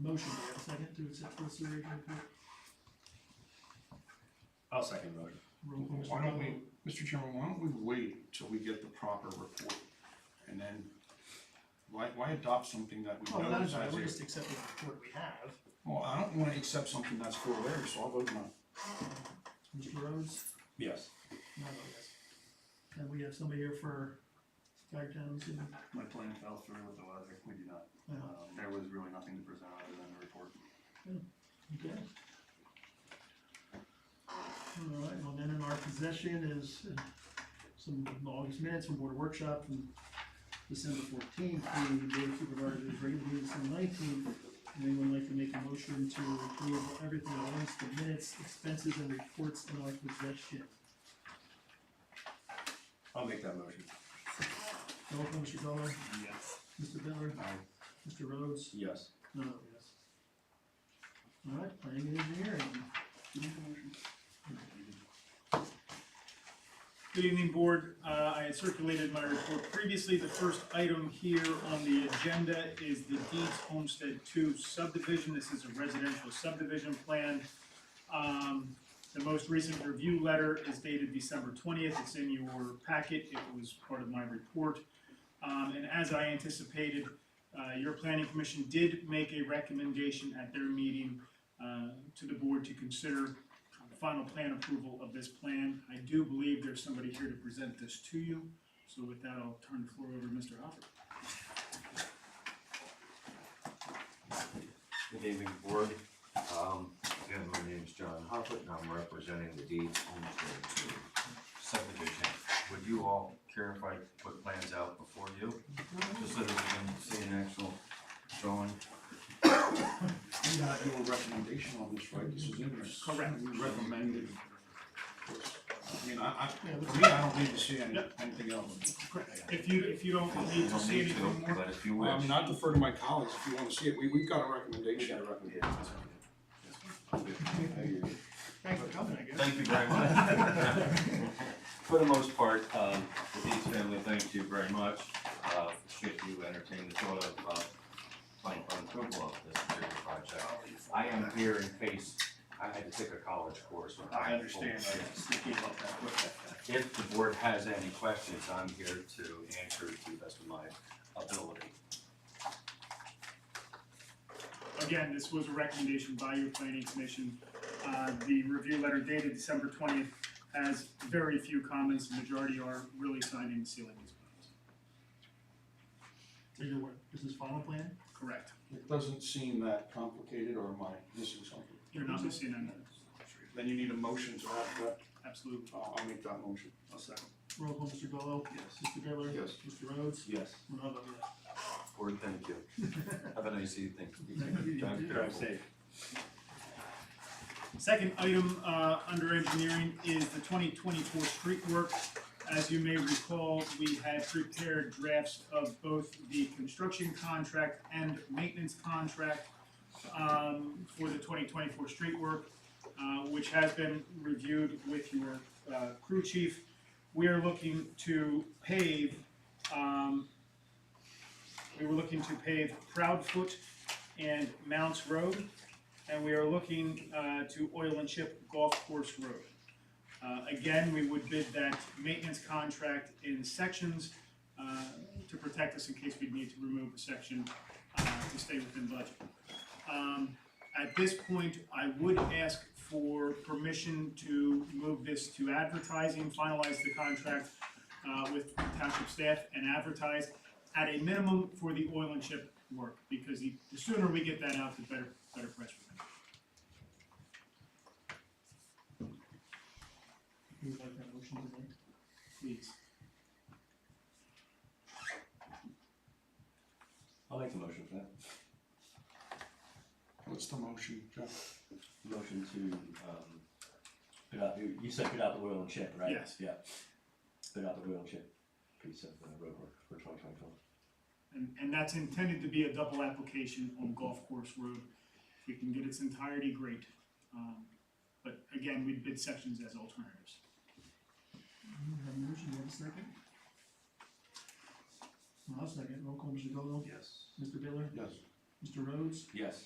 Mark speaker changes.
Speaker 1: Motion, do we have a second to accept the sewer agent report?
Speaker 2: I'll second the motion.
Speaker 1: Roll call, Mr.
Speaker 3: Why don't
Speaker 1: Dunlap.
Speaker 3: we, Mr. Chairman, why don't we wait till we get the proper report? And then, why, why adopt something that we
Speaker 1: Oh,
Speaker 3: know
Speaker 1: without a
Speaker 3: is
Speaker 1: doubt,
Speaker 3: as
Speaker 1: we're
Speaker 3: a-
Speaker 1: just accepting the report we have.
Speaker 3: Well, I don't wanna accept something that's for there, so I'll vote no.
Speaker 1: Mr. Rhodes,
Speaker 2: Yes.
Speaker 1: no, no, yes. And we have somebody here for Guard Towns and,
Speaker 4: My plan fell through with the weather, we do not,
Speaker 1: uh,
Speaker 4: um, there was really nothing to present other than the report.
Speaker 1: okay. Alright, well then in our possession is uh, some August minutes from board workshop from December fourteenth, the board of supervisors regular meeting December nineteenth. Anyone like to make a motion to approve everything at once, the minutes, expenses and reports in our possession?
Speaker 2: I'll make that motion.
Speaker 1: Roll call, Mr. Butler,
Speaker 4: Yes.
Speaker 1: Mr. Butler,
Speaker 3: Aye.
Speaker 1: Mr. Rhodes,
Speaker 2: Yes.
Speaker 1: no, yes. Alright, planning and engineering.
Speaker 5: Good evening, Board. Uh, I had circulated my report previously. The first item here on the agenda is the Deeds Homestead Two subdivision. This is a residential subdivision plan. Um, The most recent review letter is dated December twentieth. It's in your packet. It was part of my report. Um, And as I anticipated, uh, your planning commission did make a recommendation at their meeting uh, to the board to consider the final plan approval of this plan. I do believe there's somebody here to present this to you, so with that, I'll turn the floor over to Mr. Hopper.
Speaker 6: Good evening, board. Um, again, my name's John Hoffett and I'm representing the deed homestead subdivision. Would you all care if I put plans out before you? Just so that we can see an actual drawing?
Speaker 3: You got your recommendation on this, right? This is in there.
Speaker 5: Correct.
Speaker 3: We recommended. I mean, I,
Speaker 1: Yeah,
Speaker 3: I,
Speaker 1: let's-
Speaker 3: for me, I don't need to see any, anything else.
Speaker 5: If you, if you don't need to
Speaker 6: Don't
Speaker 5: say
Speaker 6: need
Speaker 5: anything
Speaker 6: to,
Speaker 5: more,
Speaker 6: but if you
Speaker 3: Well,
Speaker 6: wish.
Speaker 3: I mean, I defer to my colleagues if you wanna see it. We, we've got a recommendation.
Speaker 1: Thanks for coming, I guess.
Speaker 6: Thank you very much. For the most part, um, the Deeds family, thank you very much. Uh, should you entertain the thought of, uh, planning for approval of this particular project. I am here in case I had to take a college course. when
Speaker 4: I
Speaker 6: was
Speaker 4: understand,
Speaker 6: full.
Speaker 4: I gave up that quick.
Speaker 6: If the board has any questions, I'm here to answer to the best of my ability.
Speaker 5: again, this was a recommendation by your planning commission. Uh, the review letter dated December twentieth has very few comments, the majority are really signing and sealing these plans.
Speaker 1: So you're what, this is final plan?
Speaker 5: Correct,
Speaker 3: It doesn't seem that complicated, or am I missing something?
Speaker 5: you're not missing any,
Speaker 3: Then you need a motion to have that,
Speaker 5: absolutely.
Speaker 3: I'll, I'll make that motion.
Speaker 4: I'll second.
Speaker 1: Roll call, Mr. Gallow?
Speaker 4: Yes.
Speaker 1: Mr. Bittler?
Speaker 3: Yes.
Speaker 1: Mr. Rhodes? oh,
Speaker 2: Yes.
Speaker 1: And I'll vote
Speaker 6: Board, thank you. Have a nice evening. Drive
Speaker 1: yes.
Speaker 6: careful.
Speaker 5: Second item, uh, under engineering is the twenty twenty-four street work. As you may recall, we had prepared drafts of both the construction contract and maintenance contract um, for the twenty twenty-four street work, uh, which has been reviewed with your, uh, crew chief. We are looking to pave, um, we were looking to pave Proudfoot and Mounts Road and we are looking uh, to oil and chip golf course road. Uh, Again, we would bid that maintenance contract in sections uh, to protect us in case we need to remove a section uh, to stay within budget. Um, At this point, I would ask for permission to move this to advertising, finalize the contract uh, with township staff and advertise at a minimum for the oil and chip work, because the the sooner we get that out, the better, better press we're gonna
Speaker 1: Who would like that motion to make?
Speaker 5: get, please.
Speaker 2: I'll make the motion for that.
Speaker 3: What's the motion, Jeff?
Speaker 2: Motion to, um, put out, you you said put out the oil and chip, right?
Speaker 5: Yes.
Speaker 2: Yeah. Put out the oil and chip piece of uh, road work for twenty twenty-four.
Speaker 5: And, and that's intended to be a double application on Golf Course Road. If we can get its entirety, great. Um, But again, we bid sections as alternatives.
Speaker 1: You have a motion, you have a second? I'll second, roll call, Mr. Gallow?
Speaker 4: Yes.
Speaker 1: Mr. Bittler?
Speaker 3: Yes.
Speaker 1: Mr. Rhodes?
Speaker 2: Yes.